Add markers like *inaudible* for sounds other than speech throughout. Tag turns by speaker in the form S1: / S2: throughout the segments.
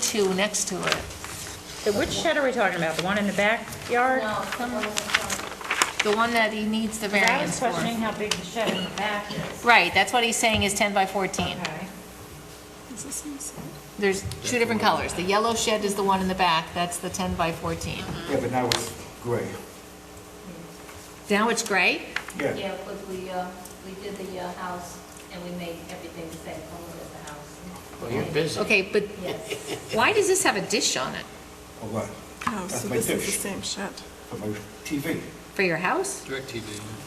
S1: two next to it.
S2: So Which shed are we talking about? The one in the backyard?
S1: The one that he needs the
S2: 'Cause I was
S1: variance for.
S2: questioning how big the shed in the back is.
S1: Right, that's what he's saying is 10 by 14.
S2: Okay.
S1: There's two different colors. The yellow shed is the one in the back, that's the 10 by 14.
S3: Yeah, but now it's gray.
S1: Now it's gray?
S3: Yeah,
S4: Yeah, because we, uh, we did the uh, house and we made everything the same color as the house.
S5: Well, you're busy.
S1: Okay, but
S4: Yes.
S1: why does this have a dish on it?
S3: a lot,
S6: No,
S3: That's
S6: Oh, so
S3: my
S6: this is the
S3: dish.
S6: same shed.
S3: for my TV.
S1: For your house?
S5: DirecTV.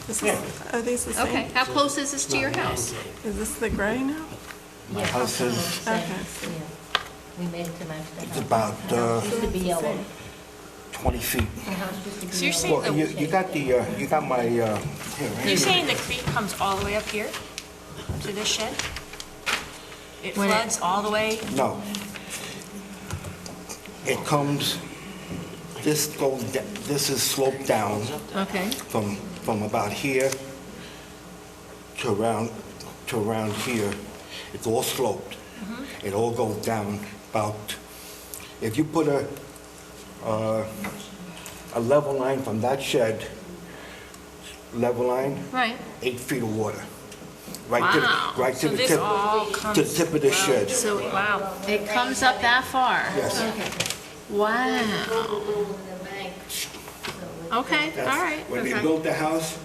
S6: This
S3: Yeah.
S6: is, are these the
S1: Okay,
S6: same?
S1: how close is this to your house?
S6: Is this the gray now?
S3: My
S4: Yeah,
S3: house
S4: color,
S3: is-
S4: same,
S6: Okay.
S4: yeah. We made it to match the house.
S3: It's about uh,
S4: It used to be yellow.
S3: 20 feet.
S4: The house used to be
S1: So you're
S4: yellow.
S1: saying
S3: Well, you you got the, uh, you got my, uh, here, right
S7: You're
S3: here.
S7: saying the creek comes all the way up here to this shed? It
S1: When it-
S7: floods all the way?
S3: No. It comes, this goes, da- this is sloped down
S1: Okay.
S3: from, from about here to around, to around here. It's all sloped.
S7: Mm-hmm.
S3: It all goes down about, if you put a, uh, a level line from that shed, level line,
S1: Right.
S3: eight feet of water. Right to
S7: Wow.
S3: the, right to
S7: So
S3: the
S7: this
S3: tip,
S7: all
S3: to the
S7: comes-
S3: tip of the shed.
S1: So
S7: Wow.
S1: it comes up that far?
S3: Yes.
S1: Wow.
S4: The bank.
S1: Okay, all
S3: That's-
S1: right.
S3: When they
S7: okay.
S3: built the house,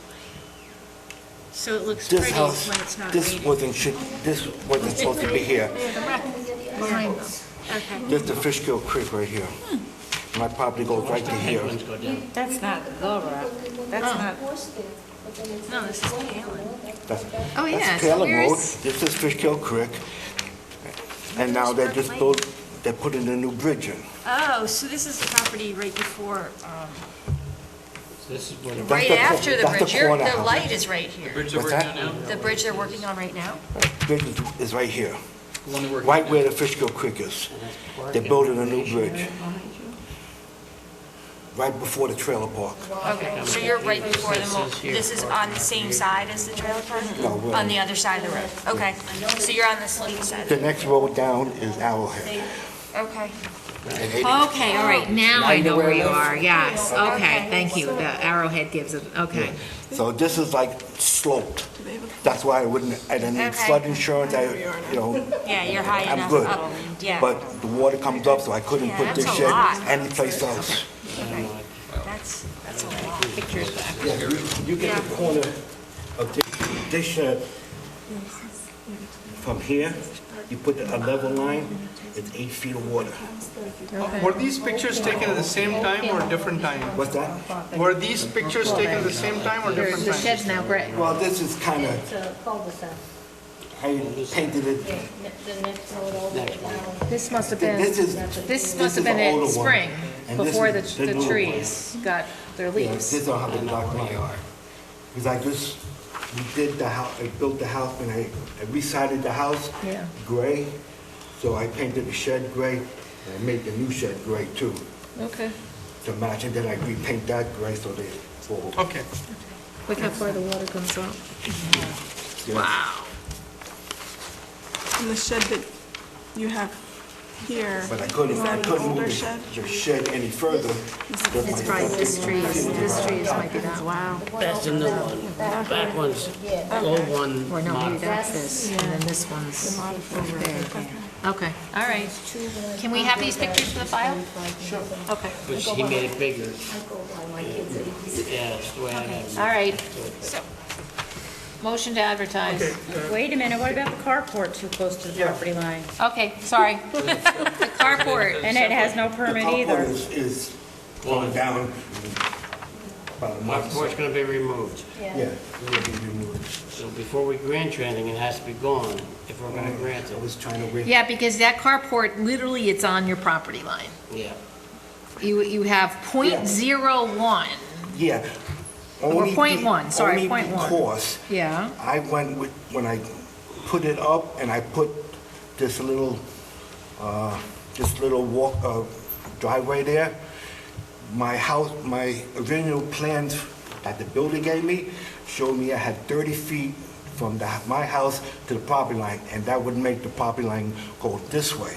S7: So it looks
S3: this
S7: pretty
S3: house,
S7: when it's not
S3: this
S7: raining.
S3: wasn't, should- this wasn't supposed to be here.
S1: Behind them.
S7: Okay.
S3: This is the Fishkill Creek right here.
S5: Hmm.
S3: My property goes right to here.
S5: Penguins go down.
S2: That's not the rock. That's not,
S7: Oh, No, this is Kalen.
S3: That's-
S1: Oh, yeah,
S3: That's
S1: so
S3: Taylor Road,
S1: where's-
S3: this is Fishkill Creek. And now they just built, they're putting a new bridge in.
S7: Oh, so this is the property right before, um,
S5: This is where the
S3: That's
S7: right
S3: the cor-
S7: after the
S3: that's the
S7: bridge. Your-
S3: corner
S7: The
S3: house.
S7: light is right here.
S5: bridge that we're
S3: What's
S5: down
S3: that?
S5: now,
S7: The bridge they're working on right now?
S3: bridge is- is right here,
S5: the one that we're Oh,
S3: right
S5: down.
S3: where the Fishkill Creek is. They're building a new bridge. Right before the trailer park.
S7: Okay, so you're right before the, mo-
S5: This is here.
S7: this is on the same side as the trailer park?
S3: No, we're-
S7: On the other side of the road? Okay, so you're on the steep
S3: The
S7: side?
S3: next road down is Arrowhead.
S7: Okay.
S3: And they-
S1: Okay, all right, now I know where you are, yes, okay,
S7: Okay.
S1: thank you, the arrowhead gives it, okay.
S3: So this is like sloped.
S6: Do they have a-
S3: That's why I wouldn't, I didn't need
S7: Okay.
S3: flood insurance, I, you know,
S7: Yeah, you're high
S3: I'm
S7: enough
S3: good.
S7: up. Yeah.
S3: But the water comes up, so I couldn't
S7: Yeah,
S3: put this
S7: that's a
S3: shed
S7: lot.
S3: anyplace else.
S7: That's, that's a lot.
S3: You get the corner of this, this shed from here, you put a level line, it's eight feet of water.
S8: Were these pictures taken at the same time or different time?
S3: What's that?
S8: Were these pictures taken at the same time or different
S1: The
S8: time?
S1: shed's now gray.
S3: Well, this is kind of,
S4: It's a cul-de-sac.
S3: I painted
S4: Yeah,
S3: it,
S4: ne- the next road over.
S1: This must have
S3: this
S1: been,
S3: is,
S1: this
S3: this
S1: must have
S3: is the
S1: been in
S3: older one,
S1: spring,
S3: and this
S1: before the,
S3: is the
S1: the
S3: newer one.
S1: trees got their
S3: yeah, this
S1: leaves.
S3: don't have a dark line. Because I just, we did the house, I built the house and I I resided the house
S1: Yeah.
S3: gray. So I painted the shed gray and I made the new shed gray too
S1: Okay.
S3: to match. And then I repaint that gray so they fall.
S8: Okay.
S1: Look how far the water comes up. Wow.
S6: And the shed that you have here,
S3: But I couldn't,
S6: is
S3: I
S6: that an
S3: couldn't move
S6: older
S3: the
S6: shed?
S3: the shed any further. because my-
S1: It's probably this tree, is- this tree is might be that, wow.
S5: That's the new one. Back one's, old one.
S1: Or no, maybe
S5: mod-
S1: that's this, and then this one's over there. Okay, all right. Can we have these pictures for the file? Okay.
S5: Which he made it bigger. Yeah, it's the way I have it.
S1: All right. Motion to advertise.
S2: wait a minute, what about the carport too close to the property line?
S1: Okay, sorry. *laughs* The carport.
S2: And it has no
S3: The
S2: permit
S3: top one
S2: either.
S3: is, is going down about a
S5: My
S3: month.
S5: port's gonna be removed.
S3: Yeah, it'll be removed.
S5: So before we grant you anything, it has to be gone if we're gonna grant
S3: I
S5: it.
S3: was trying to wait.
S1: Yeah, because that carport, literally, it's on your property line.
S5: Yeah.
S1: You, you have point zero one.
S3: Yeah.
S1: Or
S3: Only
S1: point
S3: be-
S1: one, sorry,
S3: only
S1: point one.
S3: because
S1: Yeah.
S3: I went with, when I put it up and I put this little, uh, this little walk, uh, driveway there, my house, my original plans that the builder gave me showed me I had 30 feet from the, my house to the property line, and that would make the property line go this way.